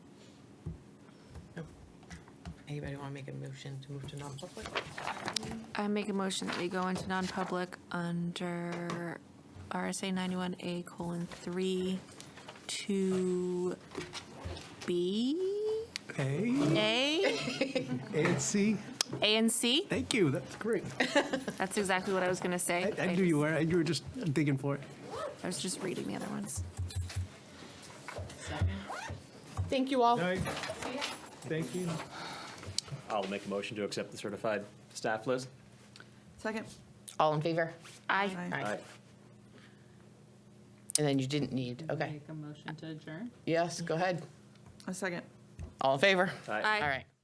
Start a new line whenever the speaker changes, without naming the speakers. Anybody want to make a motion to move to non-public?
I make a motion that we go into non-public under RSA 91A colon 3 to B,
A,
A,
and C.
A and C.
Thank you. That's great.
That's exactly what I was going to say.
I, I knew you were. You were just digging for it.
I was just reading the other ones.
Thank you all.
Thank you.
I'll make a motion to accept the certified staff list.
Second.
All in favor?
I.
Aye.
Aye. And then you didn't need, okay.
Make a motion to adjourn?
Yes, go ahead.
A second.
All in favor?
Aye.
All right.